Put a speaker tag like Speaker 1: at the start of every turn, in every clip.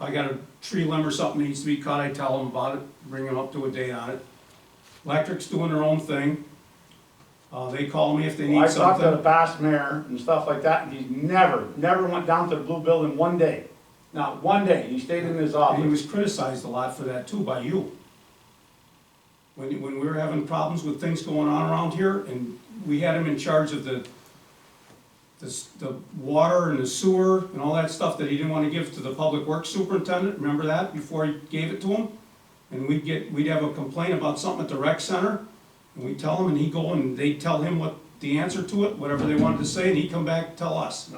Speaker 1: I got a tree limb or something needs to be cut, I tell them about it, bring them up to a date on it. Electric's doing their own thing. Uh, they call me if they
Speaker 2: Well,
Speaker 1: need
Speaker 2: I've talked to the
Speaker 1: something.
Speaker 2: past mayor and stuff like that, and he's never, never went down to the blue building one day. Not one day, he stayed in his
Speaker 1: And he
Speaker 2: office.
Speaker 1: was criticized a lot for that too by you. When, you- when we were having problems with things going on around here and we had him in charge of the, the, s- the water and the sewer and all that stuff that he didn't wanna give to the public works superintendent, remember that, before he gave it to him? And we'd get, we'd have a complaint about something at the rec center, and we'd tell him, and he'd go and they'd tell him what the answer to it, whatever they wanted to say, and he'd come back and tell us.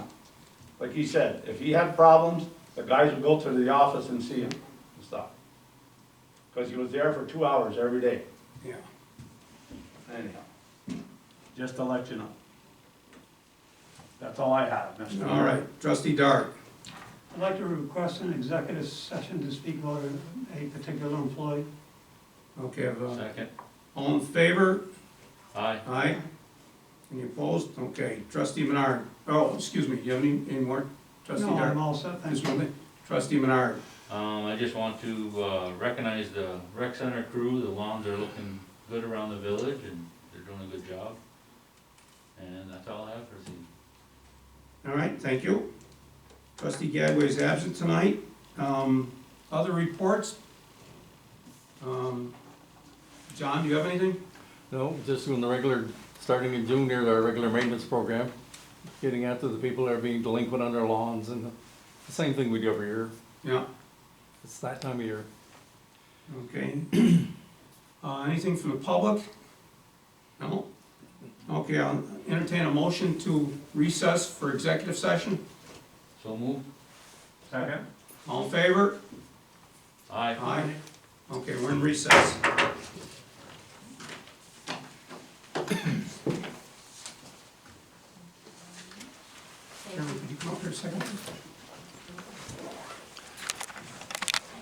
Speaker 2: Like he said, if he had problems, the guys would go to the office and see him and stuff. Cause he was there for two hours every day,
Speaker 1: Yeah.
Speaker 2: anyhow. Just to let you know. That's all I have, Mr. Mayor.
Speaker 1: All right, trustee Dart.
Speaker 3: I'd like to request an executive session to speak about a- a particular employee.
Speaker 1: Okay, uh,
Speaker 4: Second.
Speaker 1: all in favor?
Speaker 4: Aye.
Speaker 1: Aye. Any opposed? Okay, trustee Menard, oh, excuse me, you have any, any more? Trustee
Speaker 3: No, I'm
Speaker 1: Dart?
Speaker 3: all set, thank
Speaker 1: Just
Speaker 3: you.
Speaker 1: one thing. Trustee Menard,
Speaker 4: Um, I just want to, uh, recognize the rec center crew, the lawns are looking good around the village and they're doing a good job. And that's all I have for the,
Speaker 1: all right, thank you. Trustee Gadway is absent tonight. Um, other reports? Um, John, do you have anything?
Speaker 5: No, just doing the regular, starting in June, there's our regular maintenance program, getting after the people that are being delinquent on their lawns and the same thing we do every year.
Speaker 1: Yeah,
Speaker 5: It's that time of year.
Speaker 1: okay. Uh, anything from the public? No? Okay, I'll entertain a motion to recess for executive session.
Speaker 4: so move.
Speaker 2: Second?
Speaker 1: All in favor?
Speaker 4: Aye.
Speaker 1: Aye. Okay, we're in recess. Chairman, could you come up here a second?